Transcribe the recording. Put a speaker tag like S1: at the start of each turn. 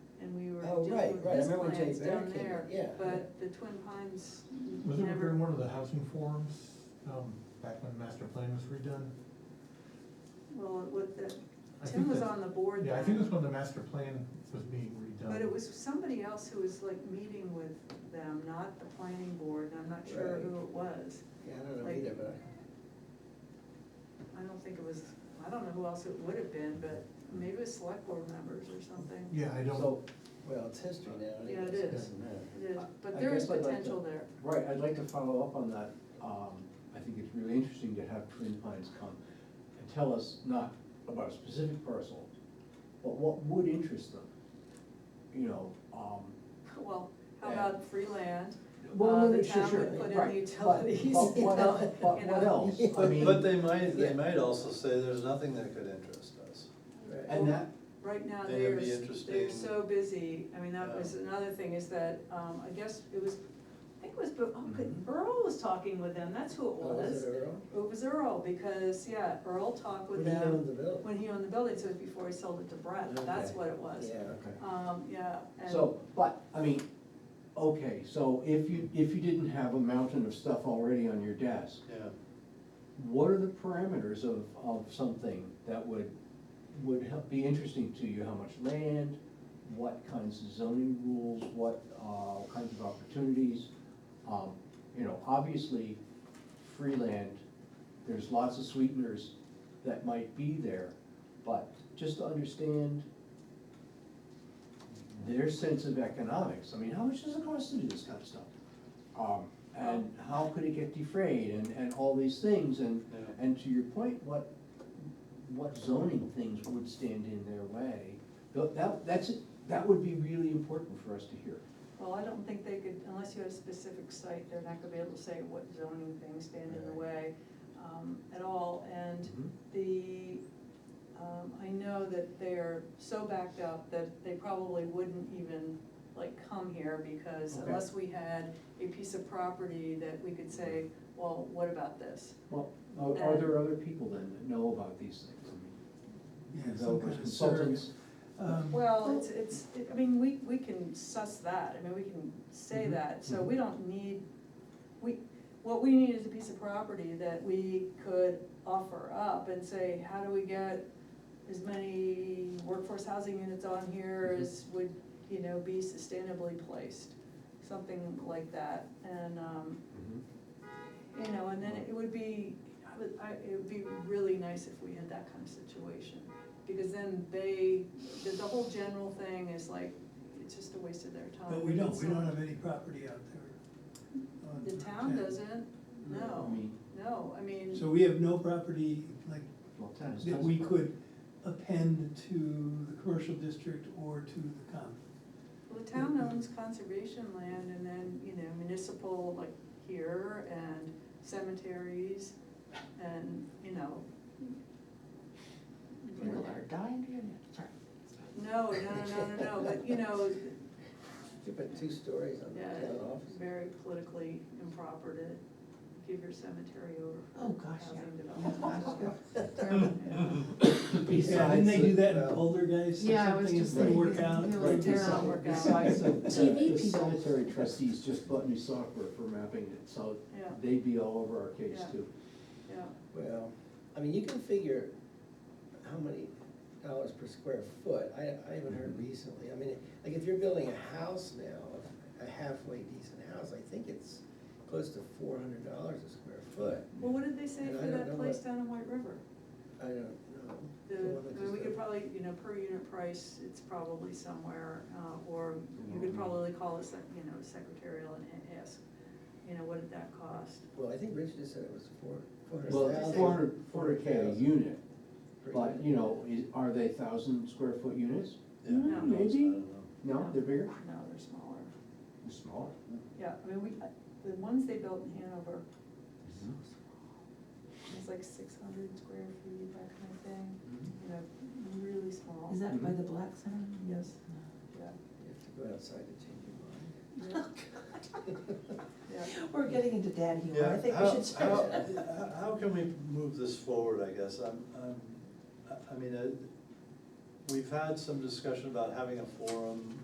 S1: Oh,
S2: do
S1: right, right, I
S2: this
S1: remember when Jay
S2: plans down
S1: Beck came,
S2: there,
S1: yeah.
S2: but the Twin Pines
S3: Was it during
S2: never,
S3: one of the housing forums, um, back when master plan was redone?
S2: well, what the,
S3: I
S2: Tim
S3: think
S2: was
S3: that's-
S2: on the board
S3: Yeah, I think it
S2: then.
S3: was when the master plan was being redone.
S2: But it was somebody else who was like meeting with them, not the planning board, and I'm not sure
S1: Right.
S2: who it was.
S1: Yeah, I don't know
S2: Like-
S1: either, but
S2: I don't think it was, I don't know who else it would have been, but maybe it was select board members or something.
S3: Yeah, I
S1: I,
S3: don't,
S1: so, well, it's history now.
S2: Yeah, it
S1: it's-
S2: is.
S1: doesn't matter.
S2: It is,
S4: I-
S2: but
S4: I
S2: there is
S4: guess I'd like to-
S2: potential there.
S4: Right, I'd like to follow up on that. Um, I think it's really interesting to have Twin Pines come and tell us not about a specific parcel, but what would interest them, you know, um.
S2: Well, how
S4: Yeah.
S2: about free land?
S4: well,
S2: Uh,
S4: no,
S2: the
S4: no, sure,
S2: town
S4: sure,
S2: would put in
S4: right, but-
S2: utilities,
S4: But what
S2: you know,
S4: else, but
S2: you
S4: what
S2: know.
S4: else? I
S5: But,
S4: mean,
S5: but they might,
S4: yeah.
S5: they might also say there's nothing that could interest us.
S1: Right.
S4: And that,
S2: Right now,
S5: Then
S2: they're,
S5: it'd be
S2: s- they're
S5: interesting.
S2: so busy, I mean, that was
S5: Yeah.
S2: another thing, is that, um, I guess it was, I think it was, Bu- oh, good,
S4: Mhm.
S2: Earl was talking with them, that's who it
S1: Oh, is
S2: was.
S1: it Earl?
S2: It was Earl, because, yeah, Earl talked with
S1: When he owned the
S2: them
S1: building.
S2: when he owned the building, so it was before he sold it to Brett, that's
S4: Okay.
S2: what it was.
S1: Yeah,
S4: okay.
S2: Um, yeah, and.
S4: So, but, I mean, okay, so if you, if you didn't have a mountain of stuff already on your desk,
S5: Yeah,
S4: what are the parameters of, of something that would, would help, be interesting to you? How much land, what kinds of zoning rules, what, uh, kinds of opportunities? Um, you know, obviously, free land, there's lots of sweeteners that might be there, but just to understand their sense of economics, I mean, how much does it cost to do this kind of stuff? Um, and how could it get defrayed and, and all these things and,
S5: Yeah.
S4: and to your point, what, what zoning things would stand in their way? Tho- That, that's, that would be really important for us to hear.
S2: Well, I don't think they could, unless you had a specific site, they're not gonna be able to say what zoning things stand in the way um, at all. And
S4: Mhm.
S2: the, um, I know that they're so backed up that they probably wouldn't even like come here because
S4: Okay.
S2: unless we had a piece of property that we could say, well, what about this?
S4: Well, are, are there other people then that know about these things? I mean,
S3: yeah,
S4: though
S3: some kind of
S4: consultants-
S3: surrogate. Um,
S2: Well, it's, it's, I mean, we, we can suss that, I mean, we can say
S4: Mhm.
S2: that, so we don't need, we, what we need is a piece of property that we could offer up and say, how do we get as many workforce housing units on here as would, you know, be sustainably placed, something like that, and, um, you know, and then it would be, I would, I, it would be really nice if we had that kind of situation. Because then they, the, the whole general thing is like, it's just a waste of their time.
S6: But we don't,
S2: It's
S6: we
S2: not-
S6: don't have any uh, property out there. on
S2: The town
S6: 10.
S2: doesn't,
S4: I
S2: no,
S4: mean,
S2: no, I mean,
S6: So we have no property, like,
S4: well, tennis.
S6: that we could append to the commercial district or to the common.
S2: well, the town owns conservation land and then, you know, municipal, like here and cemeteries and, you know.
S7: People are dying to hear that, sorry.
S2: Oh, No, no, no, no, no, but you know,
S1: You put two stories on the
S2: Yeah,
S1: town office.
S2: very politically improper to give your cemetery over. for
S7: Oh, gosh,
S2: housing
S7: yeah.
S2: development.
S7: Oh, gosh, yeah. Terrible.
S2: Yeah.
S6: Yeah, didn't they do that in Poltergeist or
S7: Yeah, I was
S6: something, it
S7: just
S6: didn't work
S7: thinking,
S6: out?
S7: you know,
S6: Right.
S7: it's
S4: Besides-
S7: not work out.
S4: Besides, the- the
S7: TV
S4: the
S7: people.
S4: cemetery trustees just bought new software for mapping it, so
S2: Yeah.
S4: they'd be all over our case
S2: Yeah.
S4: too.
S2: Yeah,
S1: Well, I mean, you can figure how many dollars per square foot, I, I haven't heard recently, I mean, like if you're building a house now, a halfway decent house, I think it's close to four hundred dollars a square foot,
S2: well, what did they say
S1: And I
S2: for
S1: don't
S2: that
S1: know
S2: place
S1: what-
S2: down in White River?
S1: I don't know.
S2: The,
S1: The one that
S2: I mean, we
S1: just-
S2: could probably, you know, per unit price, it's probably somewhere, uh, or you
S1: Mm-hmm.
S2: could probably call the, sec- you know, secretarial and a- ask, you know, what did that cost?
S1: Well, I think Rich just said it was four, four hundred
S4: Well,
S1: thousand.
S4: it's four hundred, four hundred K a unit,
S1: per
S4: but
S1: unit.
S4: you know, is, are they thousand square foot units?
S5: Yeah.
S4: Mm,
S2: No.
S5: I
S4: Maybe,
S5: don't know.
S4: no, they're bigger,
S2: No, they're smaller.
S4: they're smaller.
S2: Yeah, I mean, we, uh, the ones they built in Hanover, it's like six hundred square feet, that kind of thing. you know, really small.
S7: Is that by the black center?
S2: Yes. Yeah,
S1: You have to go outside to change your mind.
S2: yeah, Oh, yeah.
S7: We're getting into dad humor, I
S5: Yeah,
S7: think we
S5: how-
S7: should start.
S5: how- How, how can we move this forward, I guess, I'm, I'm, I- I mean, uh, we've had some discussion about having a forum